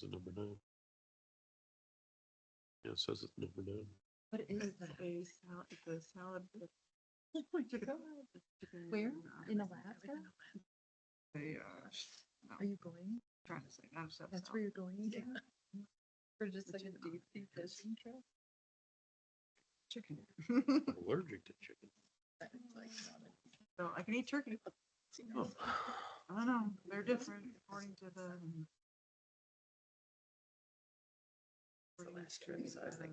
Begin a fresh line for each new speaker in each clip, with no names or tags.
the number nine. Yeah, it says it's number nigh
What is that?
a salad, the salad. Oh my god.
Where? In Alaska?
They, uh, no,
Are you going?
trying to say, I'm so.
That's where you're going?
Yeah.
For just like
Which
a
is
deep sea
not-
fishing trip?
Chicken.
I'm allergic to chicken.
That is, like, not a-
So I can eat turkey.
Oh,
I don't know, they're different according to the.
the
according
last trip,
to
so I was like,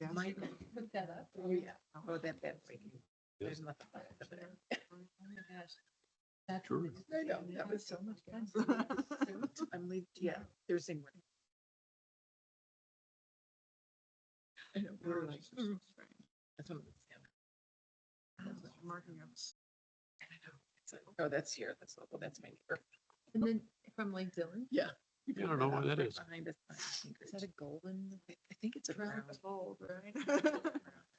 the gas
Might
station.
put that up. Oh, yeah.
Oh,
Oh, that, that's like.
Yes.
There's nothing. like it
yeah.
there. Oh my gosh. That's.
Sure.
I know, that was so much fun. So we were suit. I'm leaving, yeah, Thursday morning. I know, we were like,
Allergies are so
"Ooh."
strange.
that's one of the. yeah.
I was just Marking up.
I know. It's like, Oh, that's here, that's local, that's my neighbor.
And then from Lake Dillon?
You
Yeah, I
put
don't know
that
why
up
that
right
is.
Behind us. on Anchorage.
Is that a golden?
I I think it's a
Brown.
brown,
Cold, right?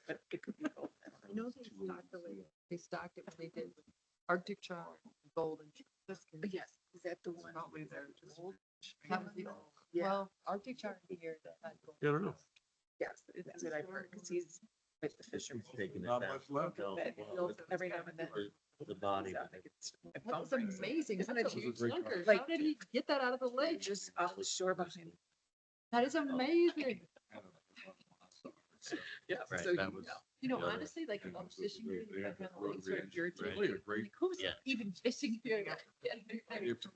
but it could be both. I
I
don't know.
know they stocked the lake, they stocked it when they did Arctic trout, golden.
But yes, is that the one?
Probably they're just.
Old?
That was the old,
Yeah,
well, Arctic trout here, that's not golden.
Yeah, I don't know.
yes, it- that's what I've heard, because he's with the fishermen.
Taking it down.
left.
No,
But
well,
he'll- every now and then.
or The body.
he's out, like, it's- my
That
phone
was
rings.
amazing.
Isn't
That's
it
a huge
great
sucker.
car?
How did he get that out of the
Like,
lake?
Just off the shore behind.
That is amazing.
Yeah.
Right,
So,
that
you
was-
know,
You know,
Yeah, they're-
honestly, like,
they're
I'm
just-
fishing
they're-
here,
they
and
have
I'm
that
like,
road
sort of
range, right?
irritated. Like, who's
Yeah.
even fishing here?
Yeah.
Yeah.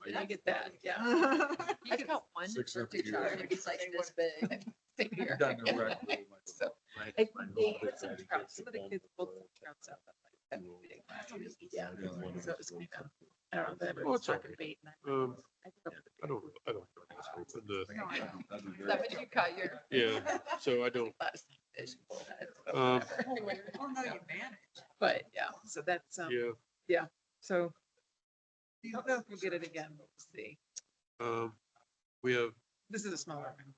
and I get that, yeah.
I have got one
Six or
Arctic
eight
trout,
years.
and it's like this big.
Same here. So,
Right.
I,
Right.
they had some
Right.
trout, some of the kids pulled some
Right.
trouts out. that, like, that big last year. Yeah.
Yeah.
So it was kind of, I don't know, that
Well,
was
it's
talking
okay.
bait. and I-
Um,
I thought it
I don't, I don't. know what's open the-
No, I don't.
Is that what you caught your?
uh, Yeah, so I don't,
was last fish, but-
Um,
Oh, no, you manage.
But, yeah, so that's, um,
uh, yeah,
so. I don't know if we'll get it again, but we'll see.
um, we have
This is a smaller one.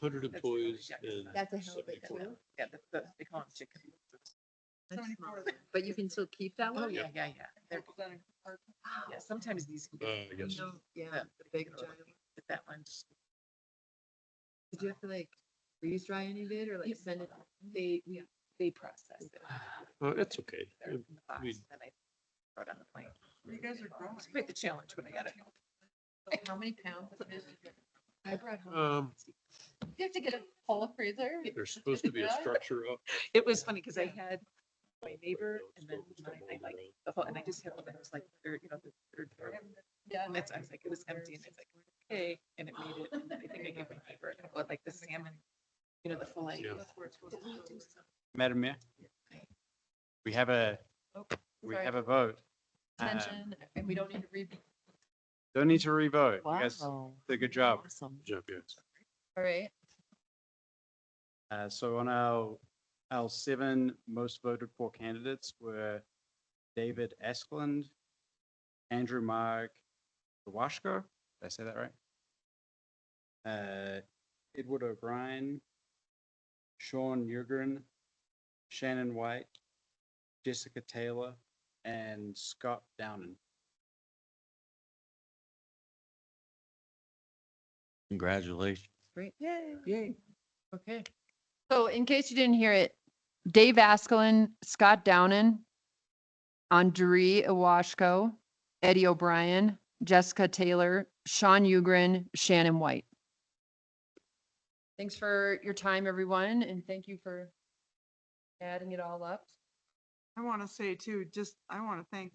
hundred
That's the only
employees
check.
and
That's a hell of a
seventy-four.
tool.
Yeah, the, the, they call them chicken.
But you can still keep that
Oh,
one?
yeah, yeah, yeah. They're, yeah, sometimes these. can
Uh,
be-
yes,
No, Yeah,
Yeah.
the big giant.
But that one's.
Did you have to like freeze dry any of it or like
Yep.
send it?
They, we- they process it.
uh, it's okay.
They're in the box,
we-
then I throw it on the plane.
You guys are growing.
It's quite the challenge when I got it.
How many pounds? of it?
I brought home.
Um,
You have to get a whole freezer?
there's supposed to be a structure up.
It was funny because I had my neighbor and then mine, I like the whole, and I just had one that was like, third, you know, the third. part.
Yeah.
And it's, uh, I was like, it was empty and it's like, okay, and it made it. And then I think I gave my neighbor, but like the salmon, you know, the fillet.
Yeah.
Madam Mayor? We have a,
Oh,
we
sorry.
have a vote. Um,
Mention, and we don't need to read.
Don't need to revote. You guys did a good job.
Jeff, yes.
All right.
Uh, So on our, our seven most voted for candidates were David Askland, Andrew Mark Dwashko, did I say that right? Uh, Edward O'Brien, Sean Yurgren, Shannon White, Jessica Taylor, and Scott Downen.
Congratulations.
Great.
Yay.
Yay. Okay.
So in case you didn't hear it, Dave Askelin, Scott Downen, Andre Iwashko, Eddie O'Brien, Jessica Taylor, Sean Ugrin, Shannon White. Thanks for your time, everyone, and thank you for adding it all up.
I want to say too, just, I want to thank